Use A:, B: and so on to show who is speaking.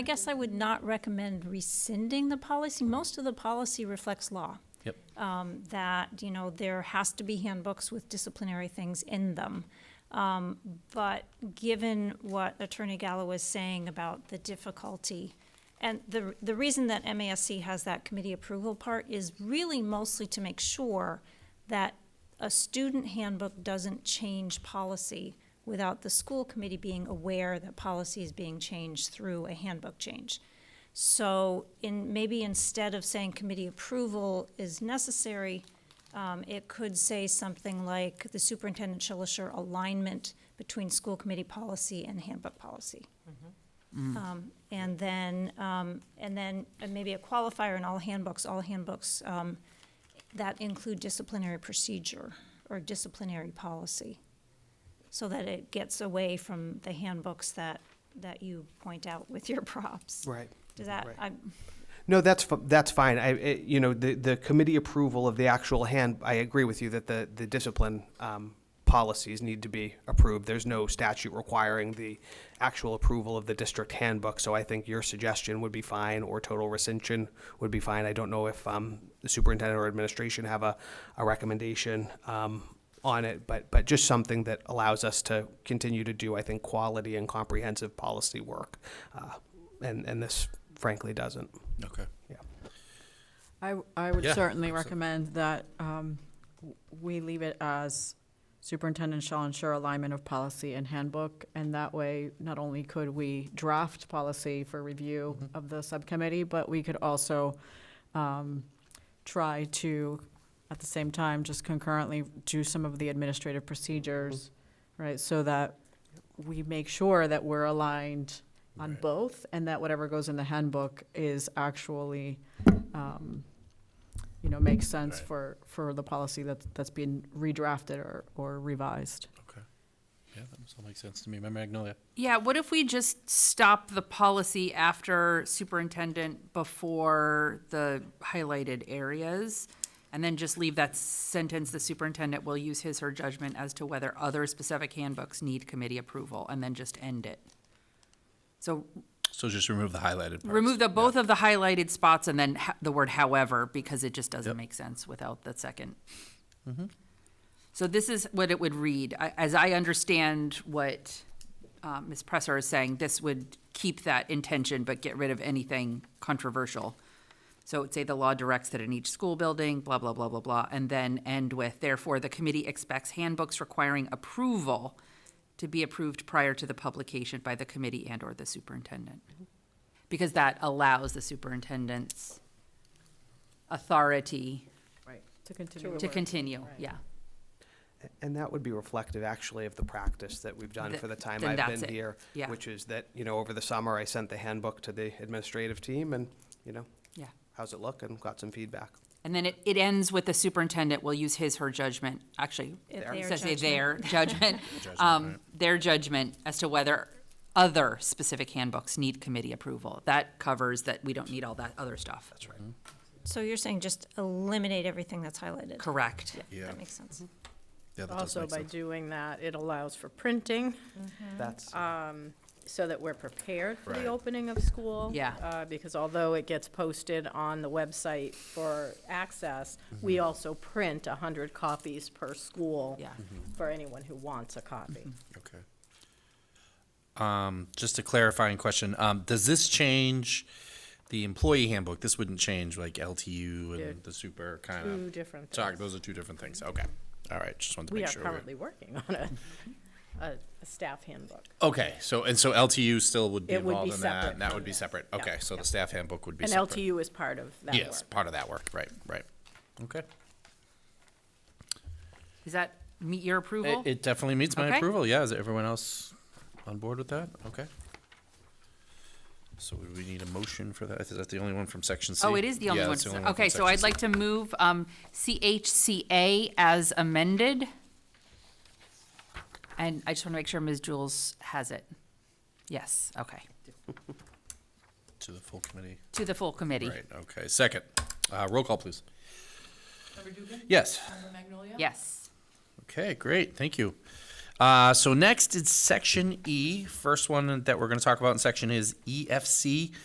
A: I guess I would not recommend rescinding the policy. Most of the policy reflects law.
B: Yep.
A: Um, that, you know, there has to be handbooks with disciplinary things in them. Um, but given what Attorney Gallo was saying about the difficulty, and the, the reason that MASC has that committee approval part is really mostly to make sure that a student handbook doesn't change policy without the school committee being aware that policy is being changed through a handbook change. So in, maybe instead of saying committee approval is necessary, um, it could say something like the superintendent shall assure alignment between school committee policy and handbook policy. Um, and then, um, and then uh, maybe a qualifier in all handbooks, all handbooks, um, that include disciplinary procedure or disciplinary policy. So that it gets away from the handbooks that, that you point out with your props.
C: Right.
A: Does that,
C: Right.
A: I,
C: No, that's, fi- that's fine. I, I- you know, the, the committee approval of the actual hand, I agree with you that the, the discipline um, policies need to be approved. There's no statute requiring the actual approval of the district handbook, so I think your suggestion would be fine, or total rescission would be fine. I don't know if um, the superintendent or administration have a, a recommendation um, on it, but, but just something that allows us to continue to do, I think, quality and comprehensive policy work. Uh, And, and this frankly doesn't.
B: Okay.
D: I, I would
B: Yeah,
D: certainly
B: absolutely.
D: recommend that um, w- we leave it as superintendent shall ensure alignment of policy and handbook. And that way, not only could we draft policy for review
B: Mm-hmm.
D: of the subcommittee, but we could also um, try to, at the same time, just concurrently do some of the administrative procedures,
B: Mm-hmm.
D: right? So that we make sure that we're aligned on
B: Right.
D: both and that whatever goes in the handbook is actually, um, you know, makes sense
B: Right.
D: for, for the policy that's, that's being redrafted or, or revised.
B: Okay. Yeah, that all makes sense to me. Member Magnolia.
E: Yeah, what if we just stop the policy after superintendent before the highlighted areas? And then just leave that sentence, the superintendent will use his or her judgment as to whether other specific handbooks need committee approval, and then just end it. So
B: So just remove the highlighted parts.
E: remove the, both of the highlighted spots and then ho- the word however, because it just doesn't
B: Yep.
E: make sense without the second. So this is what it would read, I- as I understand what uh, Ms. Presser is saying, this would keep that intention, but get rid of anything controversial. So it would say the law directs that in each school building, blah, blah, blah, blah, blah, and then end with, therefore, the committee expects handbooks requiring approval to be approved prior to the publication by the committee and/or the superintendent because that allows the superintendent's authority
D: Right. To continue.
E: to continue, yeah.
C: And that would be reflective, actually, of the practice that we've done
E: Th-
C: for the time
E: then
C: I've
E: that's
C: been
E: it.
C: here.
E: Yeah.
C: Which is that, you know, over the summer, I sent the handbook to the administrative team and, you know,
E: Yeah.
C: how's it look? And got some feedback.
E: And then it, it ends with the superintendent will use his, her judgment, actually,
A: If
E: it
A: their
E: says they-
A: judgment.
E: their judgment,
B: Judgment,
E: um,
B: right.
E: their judgment as to whether other specific handbooks need committee approval. That covers that we don't need all that other stuff. That's right.
A: so you're saying just eliminate everything that's highlighted?
E: Correct.
B: Yeah.
A: That makes sense.
B: Yeah, that does
F: Also,
B: make
F: by
B: sense.
F: doing that, it allows for printing,
C: That's,
F: so that we're prepared for
B: Right.
F: the opening of school.
E: Yeah.
F: Uh, Because although it gets posted on the website for access, we
B: Mm-hmm.
F: also print 100 copies per school.
E: Yeah.
B: Mm-hmm.
F: For anyone who wants a copy.
B: Okay. Um, just a clarifying question. Um, does this change the employee handbook? This wouldn't change like LTU
F: They're
B: and the super kind of.
F: Two different
B: Sorry,
F: things.
B: those are two different things. Okay. All right. Just wanted to
F: We
B: make
F: are
B: sure.
F: currently working on a, a a staff handbook.
B: Okay. So and so LTU still would be
F: It would be
B: involved in that.
F: separate
B: And that
F: from
B: would be
F: this.
B: separate.
F: Yeah,
B: Okay. So
F: yeah.
B: the staff handbook would be
F: And
B: separate.
F: LTU is part of that work.
B: Yes, part of that work. Right. Right. Okay.
E: Does that meet your approval?
B: It, it definitely meets my
E: Okay.
B: approval. Yeah, is everyone else on board with that? Okay. So would we need a motion for that? Is that the only one from section C?
E: Oh, it is the only
B: Yeah,
E: one.
B: that's
E: for-
B: from
E: Okay, so
B: section
E: I'd
B: C.
E: like to move um, CHCA as amended. And I just want to make sure Ms. Jules has it. Yes, okay.
B: To the full committee.
E: To the full committee.
B: Right, okay. Second, uh, roll call, please. Yes.
E: Yes.
B: Okay, great, thank you. Uh, so next is section E. First one that we're going to talk about in section is EFC,